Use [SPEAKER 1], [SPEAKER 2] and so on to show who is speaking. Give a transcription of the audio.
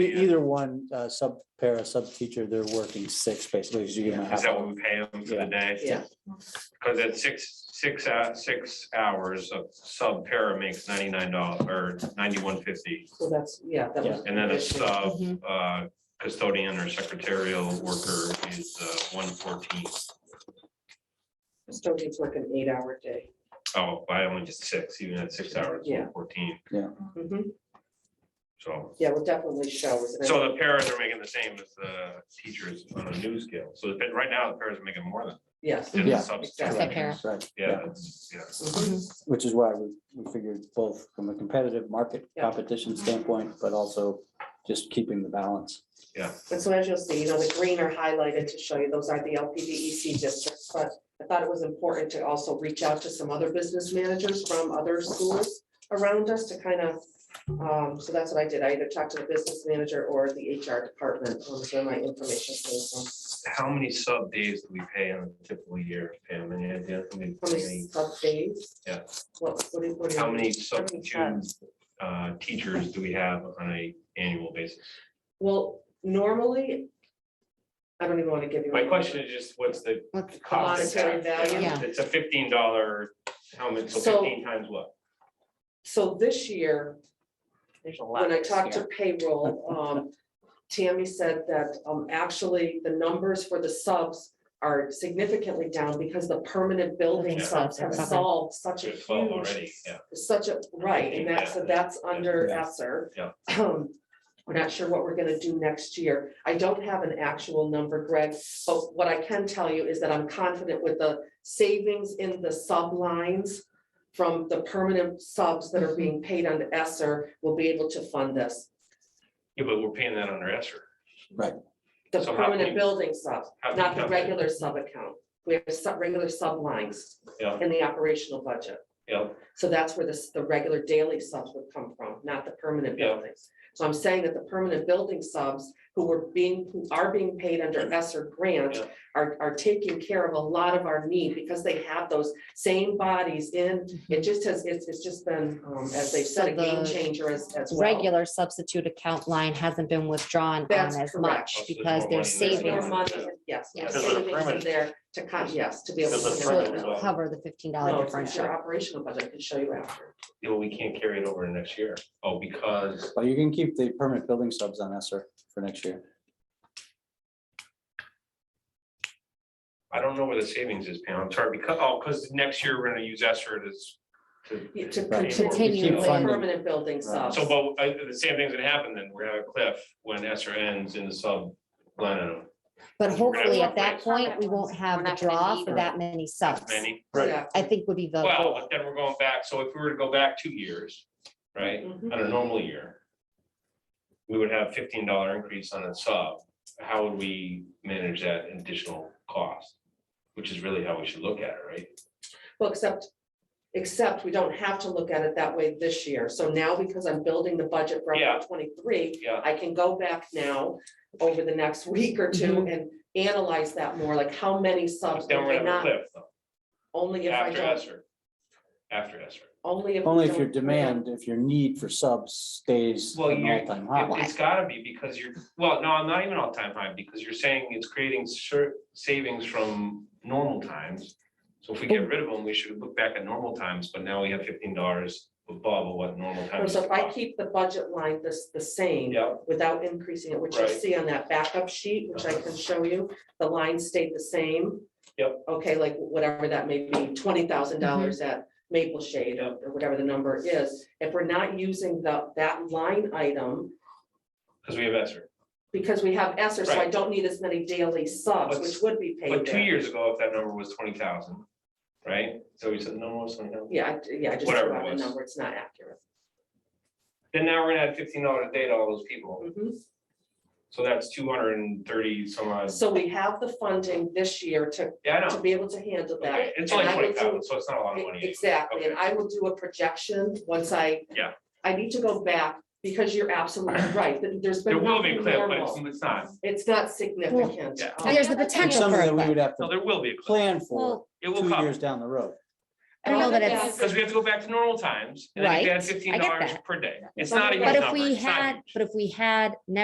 [SPEAKER 1] E- Either one, uh, sub para, sub teacher, they're working six basically, because you give them a
[SPEAKER 2] Is
[SPEAKER 1] half
[SPEAKER 2] that
[SPEAKER 1] hour.
[SPEAKER 2] what we pay them for
[SPEAKER 1] Yeah.
[SPEAKER 2] the day?
[SPEAKER 3] Yeah.
[SPEAKER 2] Cause at six, six, hou- six hours of sub para makes ninety-nine dollars or ninety-one fifty.
[SPEAKER 3] So that's, yeah. that was-
[SPEAKER 2] And then a sub
[SPEAKER 1] Mm-hmm.
[SPEAKER 3] Mhm.
[SPEAKER 2] uh, custodian or secretarial worker is uh, one fourteen.
[SPEAKER 3] Custodian's like an eight-hour day.
[SPEAKER 2] Oh, I only just six, even at six hours,
[SPEAKER 3] Yeah.
[SPEAKER 2] one fourteen,
[SPEAKER 3] Mhm.
[SPEAKER 2] so.
[SPEAKER 3] Yeah, well, definitely showers. and I-
[SPEAKER 2] So the paras are making the same as the teachers on a new scale. So the- but right now, the paras are making more than.
[SPEAKER 3] Yes.
[SPEAKER 2] than the
[SPEAKER 1] Yeah.
[SPEAKER 2] subs.
[SPEAKER 3] Except
[SPEAKER 1] Correct.
[SPEAKER 4] para.
[SPEAKER 1] Right,
[SPEAKER 2] Yeah, that's- yeah.
[SPEAKER 3] Mhm.
[SPEAKER 1] which is why we, we figured both from a competitive market
[SPEAKER 3] Yeah. Mm-hmm.
[SPEAKER 1] competition standpoint, but also just keeping the balance.
[SPEAKER 3] And so as you'll see, you know, the green are highlighted to show you, those are the LPDEC E districts, but I thought it was important to also reach out to some other business managers from other schools around us to kind of, um, so that's what I did. I either talked to the business manager or the HR department, um, is where my information came from.
[SPEAKER 2] How many sub days do we pay in a typical year, Pam? Any idea? How many-
[SPEAKER 3] How many sub days?
[SPEAKER 2] Yeah.
[SPEAKER 3] What, what do you? what do you-
[SPEAKER 2] How many
[SPEAKER 3] how many
[SPEAKER 2] substitute
[SPEAKER 3] subs?
[SPEAKER 2] uh, teachers do we have on a annual basis?
[SPEAKER 3] Well, normally, I don't even want to give you.
[SPEAKER 2] My
[SPEAKER 3] a-
[SPEAKER 2] question is just, what's the
[SPEAKER 4] What's
[SPEAKER 2] cost? of
[SPEAKER 3] Monetary
[SPEAKER 2] that?
[SPEAKER 3] value?
[SPEAKER 4] Yeah.
[SPEAKER 2] It's a fifteen dollar, how much, so
[SPEAKER 3] So-
[SPEAKER 2] fifteen times what?
[SPEAKER 3] So this year,
[SPEAKER 4] There's a
[SPEAKER 3] when I talked to payroll, um, Tammy said that, um, actually, the numbers for the subs are significantly down because the permanent building
[SPEAKER 2] Yeah.
[SPEAKER 3] subs have
[SPEAKER 4] Okay.
[SPEAKER 3] solved such a
[SPEAKER 2] There's twelve
[SPEAKER 3] huge.
[SPEAKER 2] already, yeah.
[SPEAKER 3] Such a, right, and that's, so that's under
[SPEAKER 1] Yeah.
[SPEAKER 3] Esser.
[SPEAKER 2] Yeah.
[SPEAKER 3] Um, We're not sure what we're gonna do next year. I don't have an actual number, Greg, but what I can tell you is that I'm confident with the savings in the sub lines from the permanent subs
[SPEAKER 2] Mhm.
[SPEAKER 3] that are being paid under Esser will be able to fund this.
[SPEAKER 2] Yeah, but we're paying that under Esser.
[SPEAKER 3] The
[SPEAKER 2] So how
[SPEAKER 3] permanent
[SPEAKER 2] can-
[SPEAKER 3] building subs,
[SPEAKER 2] How
[SPEAKER 3] not the
[SPEAKER 2] come-
[SPEAKER 3] regular sub account. We have sub, regular sub lines
[SPEAKER 2] Yeah.
[SPEAKER 3] in the operational budget.
[SPEAKER 2] Yeah,
[SPEAKER 3] So that's where this, the regular daily subs would come from, not the permanent
[SPEAKER 2] Yeah.
[SPEAKER 3] buildings. So I'm saying that the permanent building subs who were being, who are being paid under ESSER grant
[SPEAKER 2] Yeah.
[SPEAKER 3] are, are taking care of a lot of our need because they have those same bodies in. It just has, it's, it's just been, um, as they've said, a
[SPEAKER 4] So
[SPEAKER 3] game
[SPEAKER 4] Mm-hmm. the
[SPEAKER 3] changer as, as well.
[SPEAKER 4] Regular substitute account line hasn't been withdrawn on
[SPEAKER 3] That's
[SPEAKER 4] as
[SPEAKER 3] correct.
[SPEAKER 4] much
[SPEAKER 2] There's
[SPEAKER 4] because
[SPEAKER 2] more money
[SPEAKER 4] there's
[SPEAKER 2] there.
[SPEAKER 3] There's more
[SPEAKER 4] savings.
[SPEAKER 3] money, yes, there's
[SPEAKER 4] Yes.
[SPEAKER 2] Because of the
[SPEAKER 3] savings in
[SPEAKER 2] permanent.
[SPEAKER 3] there to, con- yes, to be able
[SPEAKER 2] Because of the
[SPEAKER 4] So
[SPEAKER 3] to.
[SPEAKER 2] permanent.
[SPEAKER 3] handle
[SPEAKER 2] as
[SPEAKER 3] it.
[SPEAKER 4] it'll
[SPEAKER 2] well.
[SPEAKER 4] cover the fifteen
[SPEAKER 3] No,
[SPEAKER 4] dollar
[SPEAKER 3] it's- it's your
[SPEAKER 4] differential.
[SPEAKER 3] operational budget, I can show you after.
[SPEAKER 2] yeah, well, we can't carry it over to next year. Oh, because,
[SPEAKER 1] Well, you can keep the permanent building subs on ESER for next year.
[SPEAKER 2] I don't know where the savings is, Pam. I'm sorry, because, oh, because next year we're gonna use Esser to. s- to-
[SPEAKER 3] Yeah, To
[SPEAKER 1] Right.
[SPEAKER 4] Continue
[SPEAKER 3] continue with
[SPEAKER 1] funding.
[SPEAKER 3] permanent building
[SPEAKER 1] Right.
[SPEAKER 3] subs.
[SPEAKER 2] So, but uh, the same thing's gonna happen then. We're gonna have a cliff when Esser ends in the sub line item.
[SPEAKER 4] But
[SPEAKER 2] We're
[SPEAKER 4] hopefully
[SPEAKER 2] gonna
[SPEAKER 4] at that
[SPEAKER 2] have
[SPEAKER 4] point, we won't have
[SPEAKER 5] We're
[SPEAKER 4] the
[SPEAKER 5] not gonna
[SPEAKER 4] draw
[SPEAKER 5] need
[SPEAKER 4] for
[SPEAKER 5] them.
[SPEAKER 4] that many subs.
[SPEAKER 2] Many,
[SPEAKER 3] Yeah.
[SPEAKER 4] I think would be the
[SPEAKER 2] well,
[SPEAKER 4] goal.
[SPEAKER 2] but then we're going back. So if we were to go back two years, right,
[SPEAKER 3] Mhm.
[SPEAKER 2] on a normal year. We would have fifteen dollar increase on a sub. How would we manage that additional cost? Which is really how we should look at it, right?
[SPEAKER 3] Well, except, except we don't have to look at it that way this year. So now because I'm building the budget for
[SPEAKER 2] Yeah.
[SPEAKER 3] twenty-three,
[SPEAKER 2] Yeah,
[SPEAKER 3] I can go back now over the next week or
[SPEAKER 2] Mm-hmm.
[SPEAKER 3] two and analyze that more, like how many subs
[SPEAKER 2] but then
[SPEAKER 3] am
[SPEAKER 2] we're
[SPEAKER 3] I
[SPEAKER 2] gonna have a
[SPEAKER 3] not?
[SPEAKER 2] cliff though,
[SPEAKER 3] Only if I
[SPEAKER 2] after
[SPEAKER 3] don't,
[SPEAKER 2] Esser. After Esser.
[SPEAKER 3] only if. we
[SPEAKER 1] Only if
[SPEAKER 3] don't-
[SPEAKER 1] your demand, if your need for subs stays
[SPEAKER 2] Well,
[SPEAKER 1] an
[SPEAKER 2] you're-
[SPEAKER 1] all-time
[SPEAKER 2] It-
[SPEAKER 1] high.
[SPEAKER 2] It's gotta be because you're, well, no, I'm not even all-time high, because you're saying it's creating cer- savings from normal times. So if we get rid of them, we should look back at normal times, but now we have fifteen dollars above what normal
[SPEAKER 3] No,
[SPEAKER 2] times.
[SPEAKER 3] So if I
[SPEAKER 2] cost.
[SPEAKER 3] keep the budget line this, the same.
[SPEAKER 2] Yeah,
[SPEAKER 3] without increasing it, which you
[SPEAKER 2] Right.
[SPEAKER 3] see on that backup sheet, which I can show you, the lines stayed the same.
[SPEAKER 2] Yep.
[SPEAKER 3] Okay, like whatever that may be, twenty thousand dollars at Maple Shade or or whatever the number is. If we're not using the, that line item,
[SPEAKER 2] because we have Esser.
[SPEAKER 3] because we have Esser, so I
[SPEAKER 2] Right.
[SPEAKER 3] don't need as many daily subs,
[SPEAKER 2] But-
[SPEAKER 3] which would be paid
[SPEAKER 2] But two
[SPEAKER 3] there.
[SPEAKER 2] years ago, if that number was twenty thousand, right? So we said, no, it's twenty thousand.
[SPEAKER 3] Yeah, I- yeah, I just
[SPEAKER 2] Whatever
[SPEAKER 3] threw
[SPEAKER 2] it
[SPEAKER 3] out a
[SPEAKER 2] was.
[SPEAKER 3] number, it's not accurate.
[SPEAKER 2] Then now we're gonna add fifteen dollars a day to all those people.
[SPEAKER 3] Mhm.
[SPEAKER 2] So that's two hundred and thirty some odd.
[SPEAKER 3] So we have the funding this year to,
[SPEAKER 2] Yeah, I
[SPEAKER 3] to
[SPEAKER 2] know.
[SPEAKER 3] be able to handle that.
[SPEAKER 2] Okay, It's
[SPEAKER 3] and
[SPEAKER 2] only
[SPEAKER 3] I will
[SPEAKER 2] twenty
[SPEAKER 3] do-
[SPEAKER 2] thousand, so it's not a lot of money. anyway.
[SPEAKER 3] Exactly, and
[SPEAKER 2] Okay.
[SPEAKER 3] I will do a projection once I.
[SPEAKER 2] Yeah.
[SPEAKER 3] I need to go back because you're absolutely right, that there's
[SPEAKER 2] There
[SPEAKER 3] been
[SPEAKER 2] will be a
[SPEAKER 3] nothing
[SPEAKER 2] cliff, but it's,
[SPEAKER 3] normal.
[SPEAKER 2] it's not.
[SPEAKER 3] It's not significant.
[SPEAKER 2] Yeah.
[SPEAKER 3] Um,
[SPEAKER 4] There's the
[SPEAKER 1] It's
[SPEAKER 4] potential
[SPEAKER 1] something
[SPEAKER 4] for
[SPEAKER 1] that we
[SPEAKER 4] it.
[SPEAKER 1] would have
[SPEAKER 2] No,
[SPEAKER 1] to
[SPEAKER 2] there will be a cliff.
[SPEAKER 1] plan for
[SPEAKER 4] Well,
[SPEAKER 2] It
[SPEAKER 1] two
[SPEAKER 2] will come,
[SPEAKER 1] years down the road.
[SPEAKER 4] I don't know that
[SPEAKER 3] Another
[SPEAKER 4] it's,
[SPEAKER 2] because we have to go back to normal times. and if you
[SPEAKER 4] Right,
[SPEAKER 2] add
[SPEAKER 4] I
[SPEAKER 2] Fifteen
[SPEAKER 4] get
[SPEAKER 2] dollars
[SPEAKER 4] that.
[SPEAKER 2] per day. It's not a huge
[SPEAKER 4] but
[SPEAKER 2] number.
[SPEAKER 4] if we
[SPEAKER 2] it's not
[SPEAKER 4] had,
[SPEAKER 2] huge.
[SPEAKER 4] but if we had never